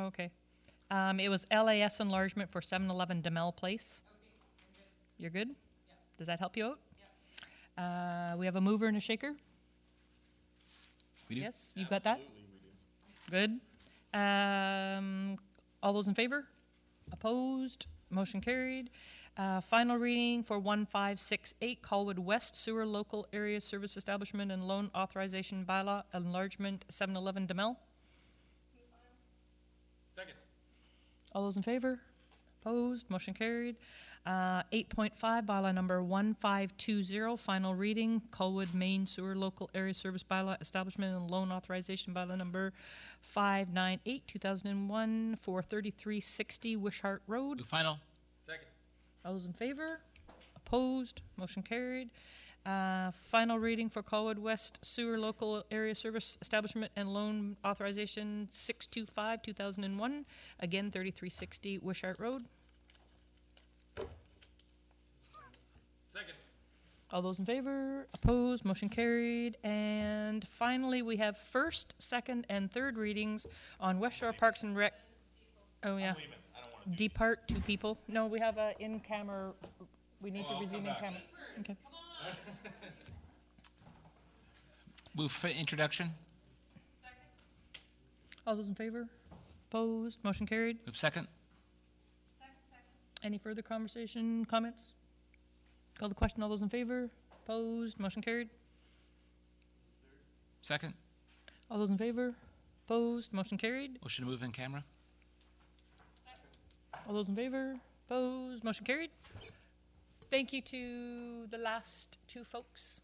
Okay. Um, it was LAS enlargement for 711 Demel Place. You're good? Does that help you out? Uh, we have a mover and a shaker? We do. Yes, you got that? Good. Um, all those in favor? Opposed? Motion carried. Uh, final reading for 1568 Colwood West Sewer Local Area Service Establishment and Loan Authorization Bylaw Enlargement 711 Demel. Second. All those in favor? Opposed? Motion carried. Uh, 8.5, bylaw number 1520, final reading, Colwood Main Sewer Local Area Service Bylaw Establishment and Loan Authorization Bylaw number 598, 2001, 43360 Wishart Road. Move final. Second. All those in favor? Opposed? Motion carried. Uh, Final reading for Colwood West Sewer Local Area Service Establishment and Loan Authorization 625, 2001. Again, 3360 Wishart Road. Second. All those in favor? Opposed? Motion carried. And finally, we have first, second, and third readings on West Shore Parks and Rec. Oh, yeah. Depart two people. No, we have a in-camera, we need to resume in-camera. Okay. Move for introduction. All those in favor? Opposed? Motion carried. Move second. Any further conversation, comments? Call the question. All those in favor? Opposed? Motion carried. Second. All those in favor? Opposed? Motion carried. Motion to move in camera. All those in favor? Opposed? Motion carried. Thank you to the last two folks.